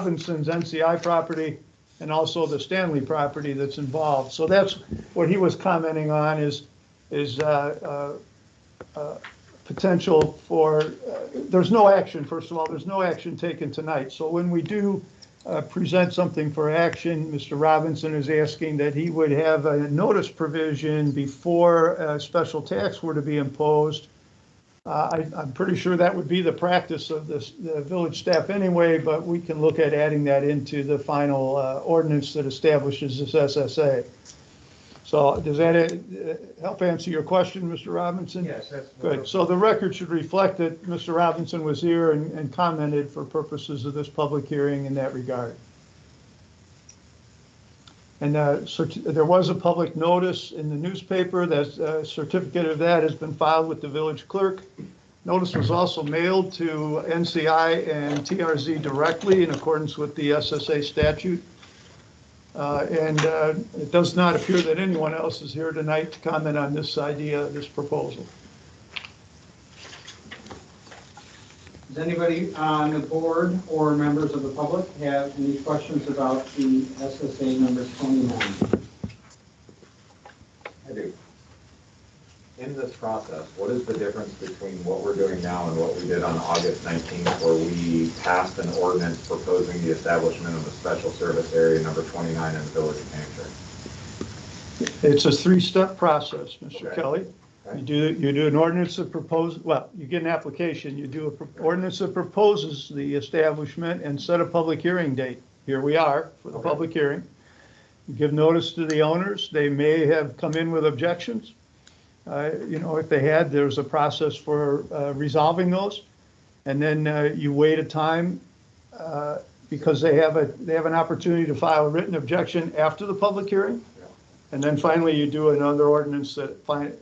Robinson's NCI property and also the Stanley property that's involved. So that's what he was commenting on is, is uh, uh, uh, potential for, uh, there's no action, first of all, there's no action taken tonight. So when we do uh, present something for action, Mr. Robinson is asking that he would have a notice provision before a special tax were to be imposed. Uh, I, I'm pretty sure that would be the practice of this, the village staff anyway, but we can look at adding that into the final uh, ordinance that establishes this SSA. So does that uh, help answer your question, Mr. Robinson? Yes, that's. Good, so the record should reflect that Mr. Robinson was here and, and commented for purposes of this public hearing in that regard. And, uh, certi- there was a public notice in the newspaper, that, uh, certificate of that has been filed with the village clerk. Notice was also mailed to NCI and TRZ directly in accordance with the SSA statute. Uh, and, uh, it does not appear that anyone else is here tonight to comment on this idea, this proposal. Does anybody on the board or members of the public have any questions about the SSA number 29? I do. In this process, what is the difference between what we're doing now and what we did on August 19th, where we passed an ordinance proposing the establishment of a special service area number 29 in the village of Hampshire? It's a three-step process, Mr. Okay. Kelly. Okay. You do, you do an ordinance that proposes, well, you get an application, you do an ordinance that proposes the establishment and set a public hearing date. Here we are for the Okay. public hearing. You Give notice to the owners, they may have come in with objections. Uh, You know, if they had, there's a process for uh, resolving those. And then uh, you wait a time uh, because they have a, they have an opportunity to file a written objection after the public hearing. Yeah. And then finally, you do another ordinance that fin-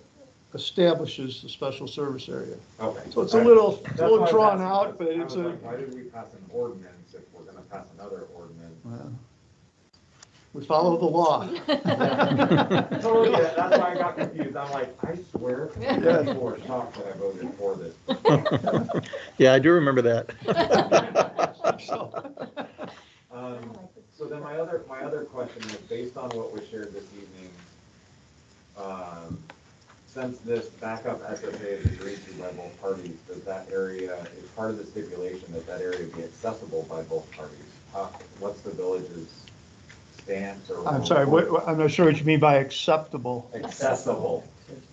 establishes the special service area. Okay. So it's a little, That's a little why I drawn passed it, out, but because I it's was a, like, Why did we pass an ordinance if we're going to pass another ordinance? we follow the law. Oh, Totally, that's why I got confused. I'm like, I swear, people were shocked that I voted for this. Yeah, I do remember that. So, Um, So then my other, my other question is, based on what was shared this evening, um, since this backup SSA is agreed to by both parties, does that area, is part of the stipulation that that area be accessible by both parties? How- What's the village's stance or? I'm sorry, what, what- I'm not sure what you mean by acceptable. Accessible.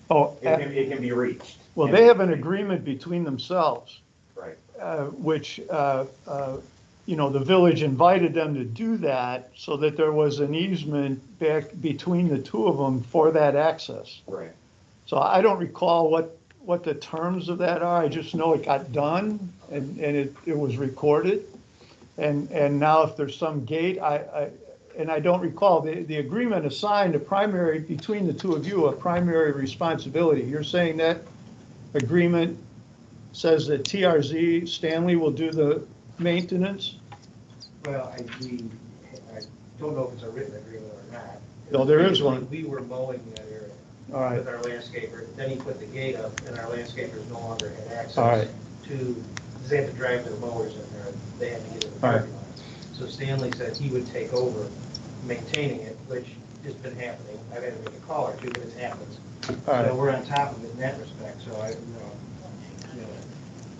Oh, It can, it can be reached. well, they have an agreement between themselves. Right, uh, which, uh, uh, you know, the village invited them to do that so that there was an easement back between the two of them for that access. right. So I don't recall what, what the terms of that are. I just know it got done and, and it, it was recorded. And, and now if there's some gate, I, I, and I don't recall, the, the agreement assigned a primary, between the two of you, a primary responsibility. You're saying that agreement says that TRZ Stanley will do the maintenance? Well, I, we, I don't know if it's a written agreement or not. No, there is one. We were mowing that area All right, with our landscaper, then he put the gate up, and our landscapers no longer had all right. access to, they had to drive their mowers in there, they had to get in the All right. parking lot. So Stanley said he would take over maintaining it, which has been happening, I've had to make a call or two, but it happens. All So right, we're on top of it in that respect, so I, you know, you know,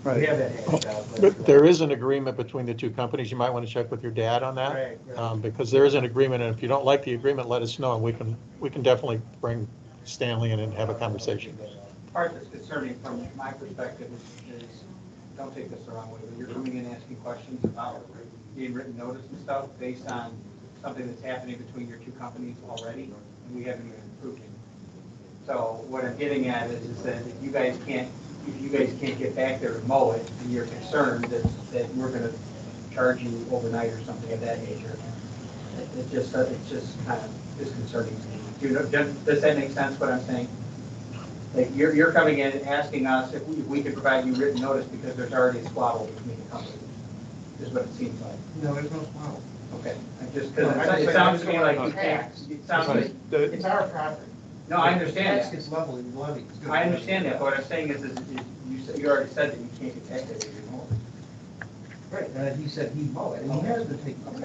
we right. have that hashed out. But There is an agreement between the two companies. You might want to check with your dad on that, Right, right. um, because there is an agreement, and if you don't like the agreement, let us know, and we can, we can definitely bring Stanley in and have a conversation. Part that's concerning from my perspective is, is, don't take this the wrong way, but you're coming in asking questions about being written notice and stuff based on something that's happening between your two companies already, and we haven't even approved it. So what I'm getting at is, is that if you guys can't, if you guys can't get back there and mow it, and you're concerned that, that we're gonna charge you overnight or something of that nature, it- it just, it's just kind of disconcerting to me. Do you know, does does that make sense what I'm saying? Like, you're, you're coming in and asking us if we, if we could provide you written notice because there's already a squabble between the companies, is what it seems like. No, there's no problem. Okay, I just, because it sounds to me like you can't, it sounds like, The- It's our property. no, I understand It's level and levy. that. I understand that, but what I'm saying is, is is you, said- you already said that you can't get back there anymore. uh, Right, oh, and he said he'd mow it, and he has been taking care of it.